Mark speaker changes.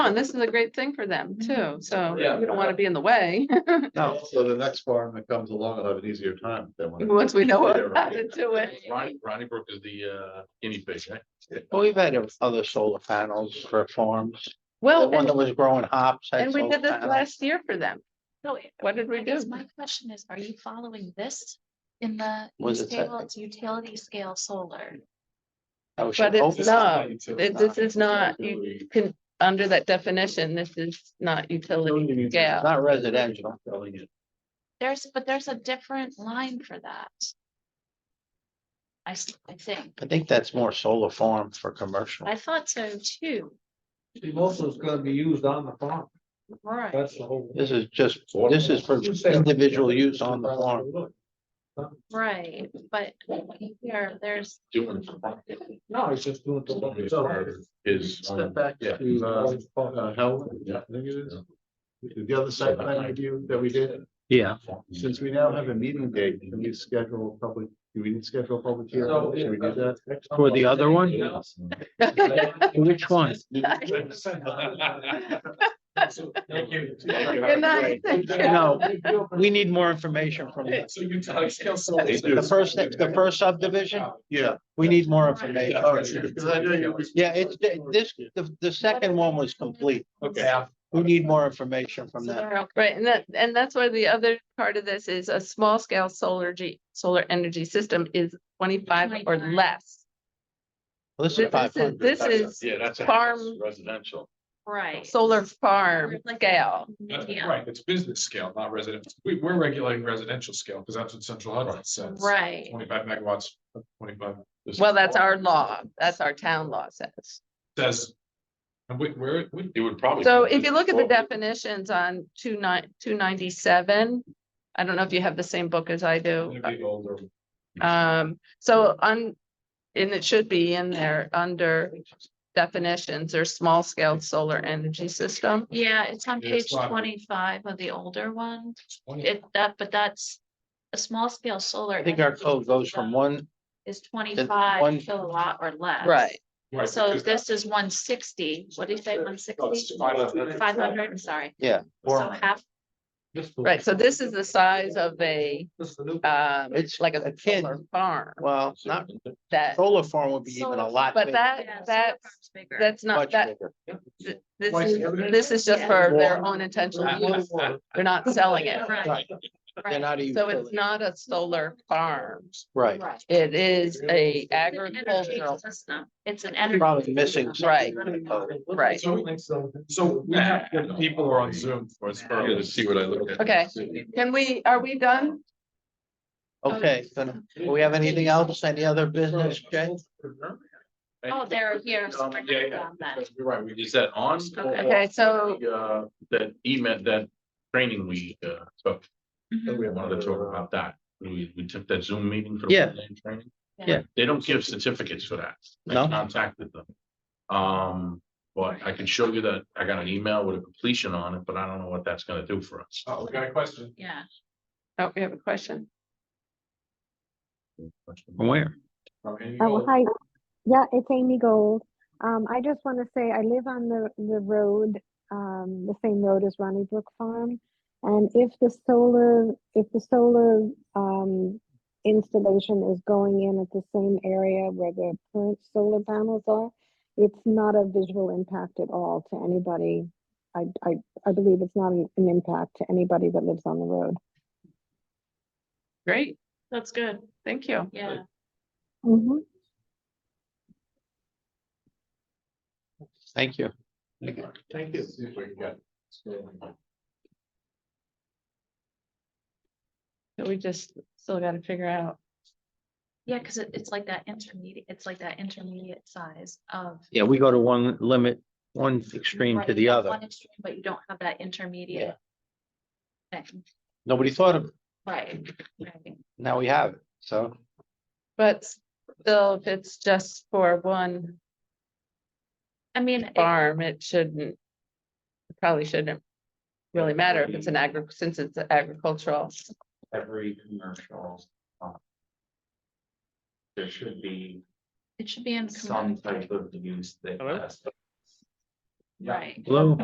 Speaker 1: and this is a great thing for them
Speaker 2: Mm-hmm.
Speaker 1: too, so
Speaker 3: Yeah.
Speaker 1: we don't wanna be in the way,
Speaker 3: No, so the next farm that comes along will have an easier time than when.
Speaker 1: once we know
Speaker 3: Yeah,
Speaker 1: what
Speaker 3: right.
Speaker 1: happened to it.
Speaker 4: Ronnie, Ronnie Brook is the uh guinea pig, right?
Speaker 5: Well, We've had other solar panels for farms. The
Speaker 1: Well,
Speaker 5: one
Speaker 1: Oh, and-
Speaker 5: that was growing hops. had
Speaker 1: and we
Speaker 5: solar
Speaker 1: did this
Speaker 5: panels.
Speaker 1: last year for them.
Speaker 2: No,
Speaker 1: What did we
Speaker 2: I guess
Speaker 1: do?
Speaker 2: my question is, are you following this in the
Speaker 5: Was it
Speaker 2: scale, it's utility scale solar?
Speaker 5: I was
Speaker 1: But it's
Speaker 5: hoping-
Speaker 1: not, it- this is not, you can, under that definition, this is not utility scale.
Speaker 5: Not residential.
Speaker 2: There's, but there's a different line for that. I, s- I think,
Speaker 5: I think that's more solar farm for commercial.
Speaker 2: I thought so too,
Speaker 6: Most of it's gonna be used on the farm,
Speaker 2: right?
Speaker 6: that's the whole.
Speaker 5: This is just, this is for individual use on the farm.
Speaker 2: Right, but here, there's,
Speaker 4: Doing.
Speaker 6: No, it's just doing.
Speaker 4: Is.
Speaker 3: Step back
Speaker 4: um, Yeah.
Speaker 3: to, uh, uh, Helen, I think it is. The other site plan review that we did,
Speaker 7: Yeah,
Speaker 3: since we now have a meeting date, can we schedule a public, do we need to schedule a public hearing?
Speaker 6: So,
Speaker 3: Should we do that?
Speaker 7: for the other one, which one?
Speaker 6: Thank you.
Speaker 1: Good night, thank you.
Speaker 5: No, we need more information from the
Speaker 6: So you tell us.
Speaker 5: the first, the first Oh, subdivision.
Speaker 3: Yeah.
Speaker 5: We need more information.
Speaker 3: All right, because I know you-
Speaker 5: Yeah, it's this, the, the second one was complete.
Speaker 3: Okay.
Speaker 5: We need more information
Speaker 2: so
Speaker 5: from that.
Speaker 2: there are
Speaker 1: Right, and that, and that's why the other part of this is a small scale solar G, solar energy system is twenty-five or
Speaker 2: 25.
Speaker 1: less.
Speaker 5: This is
Speaker 1: This
Speaker 5: five
Speaker 1: is,
Speaker 5: hundred.
Speaker 1: this is
Speaker 4: Yeah, that's. a
Speaker 1: farm-
Speaker 4: house, Residential.
Speaker 2: Right.
Speaker 1: solar farm
Speaker 2: Like a-
Speaker 1: scale.
Speaker 2: Yeah,
Speaker 6: Right, it's business scale, not residential. we, we're regulating residential scale, because that's what central Hudson says.
Speaker 2: right,
Speaker 6: Twenty-five megawatts, twenty-five.
Speaker 1: Well, that's our law, that's our town law says.
Speaker 6: Says. And we, we're, we,
Speaker 4: It would probably.
Speaker 1: So
Speaker 4: be-
Speaker 1: if you look at the
Speaker 4: Well,
Speaker 1: definitions on two nine, two ninety-seven, I don't know if you have the same book as I do.
Speaker 6: it'd be older.
Speaker 1: Um, so on, and it should be in there under definitions or small scale solar energy system.
Speaker 2: yeah, it's on
Speaker 6: Yeah, it's
Speaker 2: page
Speaker 6: not-
Speaker 2: twenty-five of the older one,
Speaker 6: Twenty-
Speaker 2: it, that, but that's. A small scale solar.
Speaker 5: I think our code goes from one,
Speaker 2: Is twenty-five
Speaker 5: one-
Speaker 2: kilowatt or less.
Speaker 1: Right,
Speaker 6: right,
Speaker 2: So
Speaker 6: because
Speaker 2: this is one sixty, what did you say, one sixty? Five hundred, I'm sorry.
Speaker 5: Yeah.
Speaker 2: So half,
Speaker 1: right. So this is the size of a, um,
Speaker 5: It's
Speaker 1: like a
Speaker 5: akin-
Speaker 1: solar farm
Speaker 5: well, not,
Speaker 1: that,
Speaker 5: solar farm would be even a lot
Speaker 1: but
Speaker 5: bigger.
Speaker 2: yeah,
Speaker 1: that,
Speaker 2: solar
Speaker 1: that's,
Speaker 2: farm's bigger.
Speaker 1: that's not,
Speaker 5: much
Speaker 1: that,
Speaker 5: bigger.
Speaker 1: this
Speaker 6: Twice
Speaker 1: is,
Speaker 6: the other-
Speaker 1: this is just for their own
Speaker 6: Yeah.
Speaker 1: intentional use. They're not selling it.
Speaker 2: Right,
Speaker 5: Right. They're
Speaker 2: right,
Speaker 5: not a
Speaker 1: So it's
Speaker 5: utility.
Speaker 1: not a solar farm.
Speaker 5: Right.
Speaker 2: right.
Speaker 1: It is a
Speaker 2: It's an energy
Speaker 1: agricultural,
Speaker 2: system. It's an energy.
Speaker 5: Probably missing
Speaker 2: system.
Speaker 1: right, right.
Speaker 6: So we have, the people who are on Zoom.
Speaker 4: Or it's probably, let's see what I looked at.
Speaker 1: Okay. Can we, are we done?
Speaker 5: Okay, then, do we have anything else? Any other business, Jay?
Speaker 2: Oh, they're here. so we're
Speaker 6: Um, yeah,
Speaker 2: not
Speaker 6: yeah.
Speaker 2: done then.
Speaker 6: You're right, we
Speaker 4: Is that on?
Speaker 2: Okay.
Speaker 1: Okay, so
Speaker 4: Uh, that email, that training we uh took,
Speaker 5: Mm-hmm.
Speaker 2: Mhm.
Speaker 4: we wanted to talk about that. We we took that Zoom meeting for. the
Speaker 5: Yeah.
Speaker 4: online Training.
Speaker 5: Yeah.
Speaker 4: They don't give certificates for that. I
Speaker 5: No?
Speaker 4: Contacted them. Um, but I can show you that I got an email with a completion on it, but I don't know what that's gonna do for us.
Speaker 6: Oh, we got a question.
Speaker 2: Yeah,
Speaker 1: Oh, we have a question.
Speaker 7: From where?
Speaker 6: from Amy
Speaker 8: Oh,
Speaker 6: Gold.
Speaker 8: hi. Yeah, it's Amy Gold. Um, I just want to say I live on the, the road, um, the same road as Ronnie Brook Farm. And if the solar, if the solar, um, installation is going in at the same area where the current solar panels are, it's not a visual impact at all to anybody. I, I, I believe it's not an an impact to anybody that lives on the road.
Speaker 1: Great,
Speaker 2: that's good.
Speaker 1: thank you.
Speaker 2: Yeah.
Speaker 8: Mm-hmm.
Speaker 5: Thank you.
Speaker 6: Thank you. See if we can get-
Speaker 1: So We just still gotta figure out.
Speaker 2: Yeah, because it, it's like that intermediate, it's like that intermediate size of.
Speaker 7: Yeah, we go to one limit, one extreme
Speaker 2: Right,
Speaker 7: to
Speaker 2: you
Speaker 7: the
Speaker 2: have
Speaker 7: other.
Speaker 2: one extreme, But you don't have that intermediate. thing.
Speaker 5: Nobody thought of, it.
Speaker 2: Right, right.
Speaker 5: now we have it, so.
Speaker 1: But still, if it's just for one
Speaker 2: I mean, it-
Speaker 1: farm, it shouldn't. it Probably shouldn't really matter if it's an agri, since it's agricultural.
Speaker 9: every commercial. um, There should be
Speaker 2: it should be in.
Speaker 9: some
Speaker 2: commercial.
Speaker 9: type of use that. has-
Speaker 10: right.
Speaker 4: Hello?